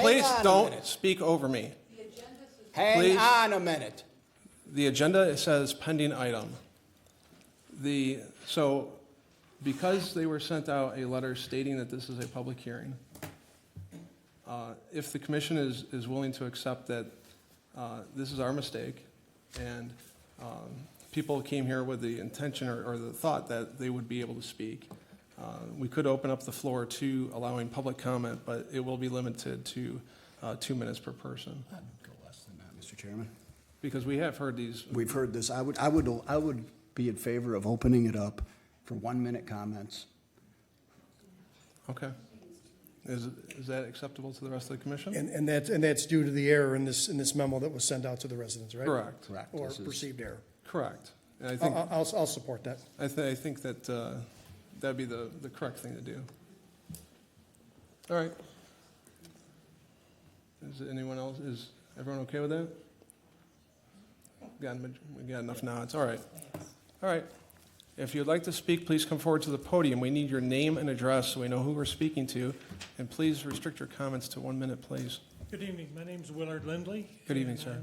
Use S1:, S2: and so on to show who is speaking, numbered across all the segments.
S1: Please
S2: on a
S1: don't
S2: minute.
S1: speak over me.
S2: Hang
S1: please.
S2: on a minute.
S1: The agenda says pending item. The, so because they were sent out a letter stating that this is a public hearing, uh, if the commission is, is willing to accept that uh, this is our mistake and um, people came here with the intention or, or the thought that they would be able to speak, uh, we could open up the floor to allowing public comment, but it will be limited to uh, two minutes per person.
S3: Go less than that, Mr. Chairman.
S1: Because we have heard these
S3: We've heard this. I would, I would, I would be in favor of opening it up for one-minute comments.
S1: Okay. Is, is that acceptable to the rest of the commission?
S4: And, and that's, and that's due to the error in this, in this memo that was sent out to the residents, right?
S1: Correct,
S3: Correct.
S4: Or
S3: This is-
S4: perceived error.
S1: correct. And I
S4: I'll,
S1: think,
S4: I'll, I'll- I'll support that.
S1: I thi- I think that, uh, that'd be the, the correct thing to do. All right. Is anyone else, is everyone okay with that? Got, a maj- we got enough nods, all right. All right. If you'd like to speak, please come forward to the podium. We need your name and address so we know who we're speaking to. And please restrict your comments to one minute, please.
S5: Good evening, my name's Willard Lindley.
S1: Good evening,
S5: and
S1: sir.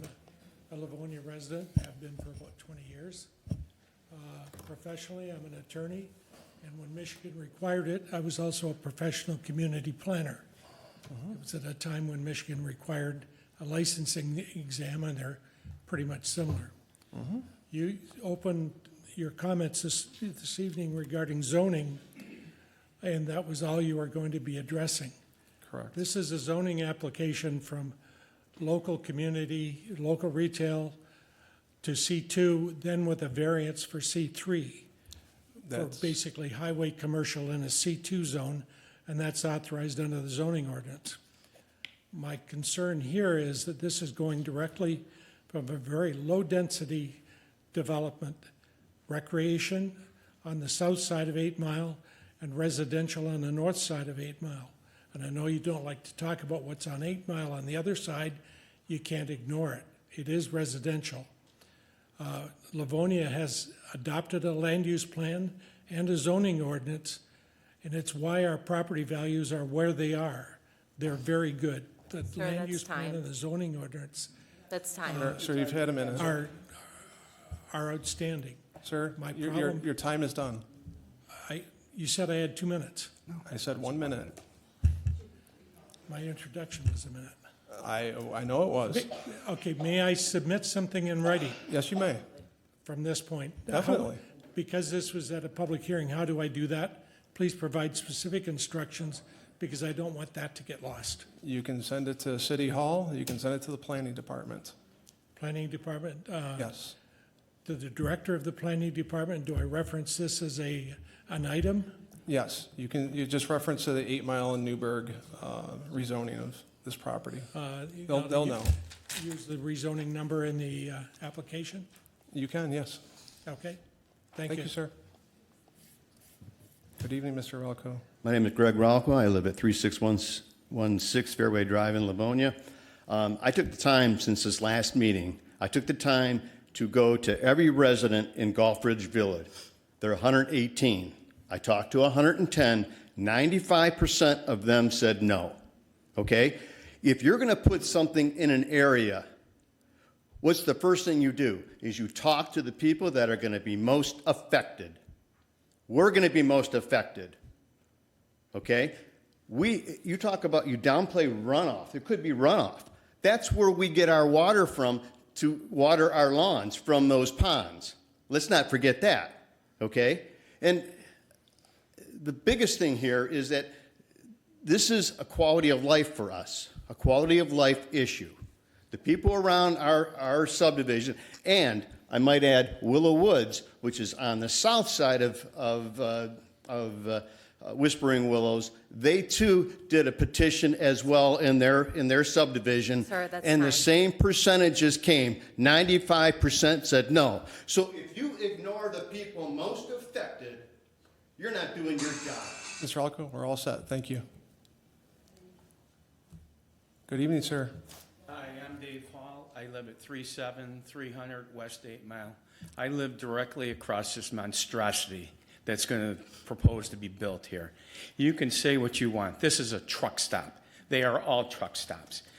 S5: I'm A Livonia resident, have been for about 20 years. Uh, Professionally, I'm an attorney, and when Michigan required it, I was also a professional community planner.
S1: Mm-hmm.
S5: It was at a time when Michigan required a licensing exam, and they're pretty much similar.
S1: Mm-hmm.
S5: You opened your comments this, this evening regarding zoning, and that was all you were going to be addressing.
S1: Correct.
S5: This is a zoning application from local community, local retail to C2, then with a variance for C3. For
S1: That's-
S5: basically highway commercial in a C2 zone, and that's authorized under the zoning ordinance. My concern here is that this is going directly from a very low-density development, recreation on the south side of Eight Mile and residential on the north side of Eight Mile. And I know you don't like to talk about what's on Eight Mile on the other side. You can't ignore it. It is residential. Uh, Livonia has adopted a land use plan and a zoning ordinance, and it's why our property values are where they are. They're very good. The land
S6: that's
S5: use plan
S6: time.
S5: and the zoning ordinance
S6: That's time.
S1: Sir, you've had a minute.
S5: are, are outstanding.
S1: Sir,
S5: My
S1: your, your,
S5: problem-
S1: your time is done.
S5: I, you said I had two minutes.
S1: I said one minute.
S5: My introduction was a minute.
S1: I, I know it was.
S5: Okay, may I submit something in writing
S1: Yes, you may.
S5: from this point?
S1: Definitely.
S5: Because this was at a public hearing, how do I do that? Please provide specific instructions, because I don't want that to get lost.
S1: You can send it to City Hall, you can send it to the Planning Department.
S5: Planning Department, uh,
S1: Yes.
S5: to the director of the planning department, do I reference this as a, an item?
S1: Yes, you can, you just reference to the Eight Mile and Newburgh uh, rezoning of this property.
S5: Uh, you
S1: They'll,
S5: gotta
S1: they'll
S5: u-
S1: know.
S5: Use the rezoning number in the uh, application?
S1: You can, yes.
S5: Okay, thank
S1: Thank
S5: you.
S1: you, sir. Good evening, Mr. Valco.
S7: My name is Greg Ralco. I live at 36116 Fairway Drive in Livonia. Um, I took the time since this last meeting, I took the time to go to every resident in Gulf Ridge Village. There are 118. I talked to 110. 95% of them said no. Okay? If you're going to put something in an area, what's the first thing you do? Is you talk to the people that are going to be most affected. We're going to be most affected okay? We, you talk about, you downplay runoff. There could be runoff. That's where we get our water from to water our lawns from those ponds. Let's not forget that, okay? And the biggest thing here is that this is a quality of life for us, a quality of life issue. The people around our, our subdivision, and I might add Willow Woods, which is on the south side of, of, uh, of uh, Whispering Willows, they too did a petition as well in their, in their subdivision.
S6: Sir, that's
S7: And the
S6: time.
S7: same percentages came, ninety-five percent said no. So if you ignore the people most affected, you're not doing your job.
S1: Mr. Valco, we're all set. Thank you. Good evening, sir.
S8: Hi, I'm Dave Hall. I live at 37300 West 8 Mile. I live directly across this monstrosity that's going to propose to be built here. You can say what you want. This is a truck stop. They are all truck stops.